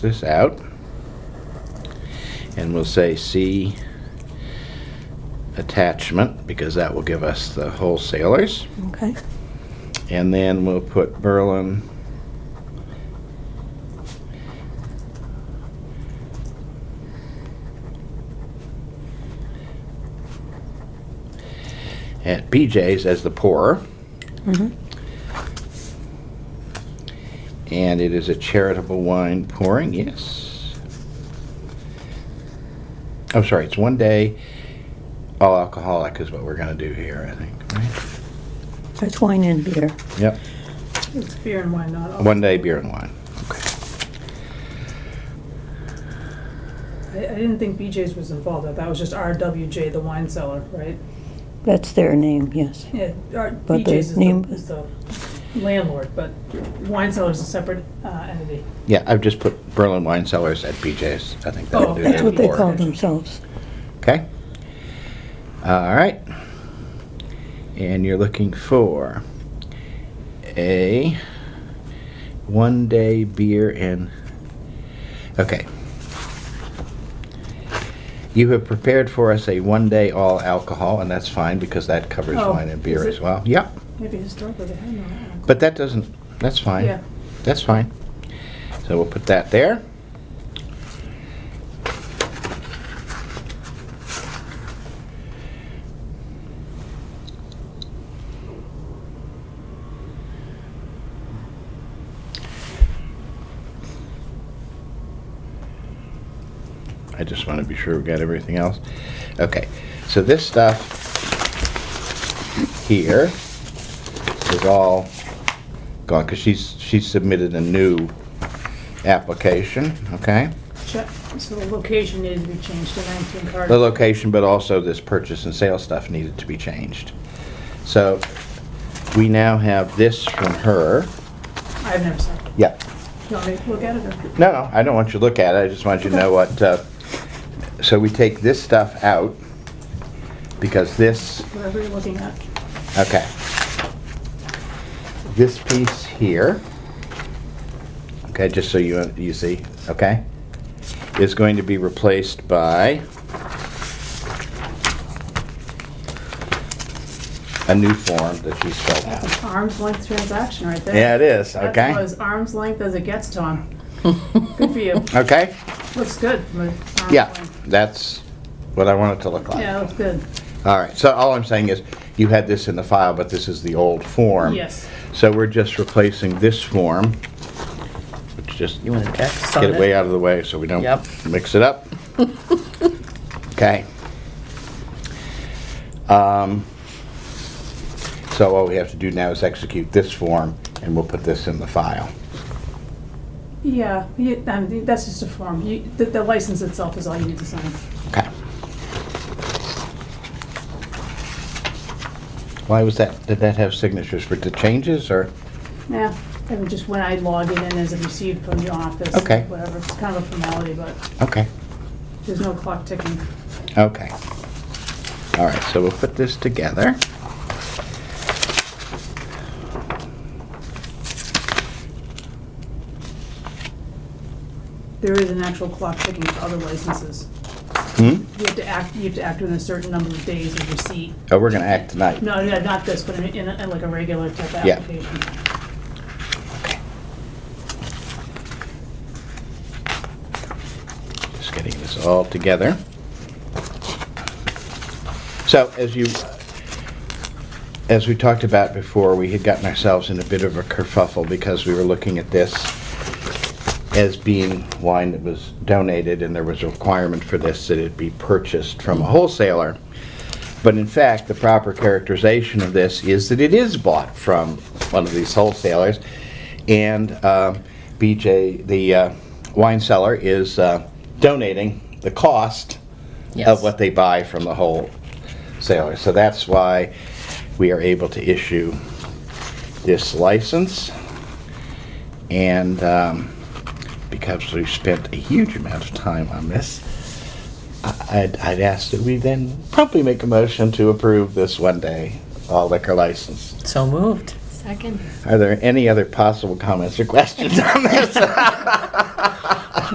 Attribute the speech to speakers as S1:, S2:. S1: this out. And we'll say C attachment, because that will give us the wholesalers.
S2: Okay.
S1: And then we'll put Berlin. At BJ's as the pourer. And it is a charitable wine pouring, yes. I'm sorry, it's one day, all alcoholic is what we're gonna do here, I think, right?
S2: That's wine and beer.
S1: Yep.
S3: It's beer and wine, not all.
S1: One day beer and wine. Okay.
S3: I, I didn't think BJ's was involved. That was just RWJ, the wine cellar, right?
S2: That's their name, yes.
S3: Yeah, our-
S2: But the
S3: BJ's is
S2: name-
S3: the, is the landlord, but wine cellar is a separate uh, entity.
S1: Yeah, I've just put Berlin Wine Cellars at BJ's. I think that'll
S3: Oh,
S1: do.
S2: That's
S1: that
S2: what they
S1: for-
S2: call themselves.
S1: Okay. Uh, All right. And you're looking for a one day beer and. Okay. You have prepared for us a one day all alcohol, and that's fine because that covers
S3: Oh,
S1: wine and beer as
S3: is it?
S1: well. Yep.
S3: Maybe historically they had no alcohol.
S1: But that doesn't, that's fine.
S3: Yeah.
S1: That's fine. So we'll put that there. I just want to be sure we got everything else. Okay, so this stuff here is all gone, because she's, she submitted a new application, okay?
S3: Check, so the location needed to be changed to 19
S1: The
S3: Carter.
S1: location, but also this purchase and sale stuff needed to be changed. So we now have this from her.
S3: I've never seen it.
S1: Yeah.
S3: You want me to look at it or?
S1: No, no, I don't want you to look at it, I just want you to know what, uh, so we take this stuff out, because this,
S3: Whatever you're looking at.
S1: okay. This piece here, okay, just so you, you see, okay, is going to be replaced by a new form that she's filled
S3: That's
S1: out.
S3: an arm's length transaction right there.
S1: Yeah, it is,
S3: That's about
S1: okay?
S3: as arm's length as it gets, Tom. Good for you.
S1: Okay,
S3: Looks good from an arm's
S1: yeah,
S3: length.
S1: that's what I want it to look like.
S3: Yeah, looks good.
S1: All right, so all I'm saying is, you had this in the file, but this is the old form.
S3: Yes.
S1: So we're just replacing this form, which just,
S4: You want to text on
S1: get it way
S4: it?
S1: out of the way so we don't
S4: Yep.
S1: mix it up. Okay. Um, So all we have to do now is execute this form, and we'll put this in the file.
S3: Yeah, you- I mean, that's just a form. You- The the license itself is all you need to sign.
S1: Okay. Why was that, did that have signatures for the changes, or?
S3: Yeah, I mean, just when I log it in as a received from the office.
S1: Okay.
S3: Whatever, it's kind of a formality, but
S1: Okay.
S3: there's no clock ticking.
S1: Okay. All right, so we'll put this together.
S3: There is an actual clock ticking for other licenses.
S1: Hmm?
S3: You have to act, you have to act within a certain number of days of receipt.
S1: Oh, we're gonna act tonight.
S3: No, yeah, not this, but I mean, in a- in like a regular type
S1: Yeah.
S3: application.
S1: Just getting this all together. So as you, as we talked about before, we had gotten ourselves in a bit of a kerfuffle because we were looking at this as being wine that was donated, and there was a requirement for this that it be purchased from a wholesaler. But in fact, the proper characterization of this is that it is bought from one of these wholesalers. And uh, BJ, the uh, wine seller, is uh, donating the cost of
S4: Yes.
S1: what they buy from the wholesaler. So that's why we are able to issue this license. And um, because we've spent a huge amount of time on this, I'd, I'd ask that we then promptly make a motion to approve this one-day all liquor license.
S4: So moved.
S5: Second.
S1: Are there any other possible comments or questions on this?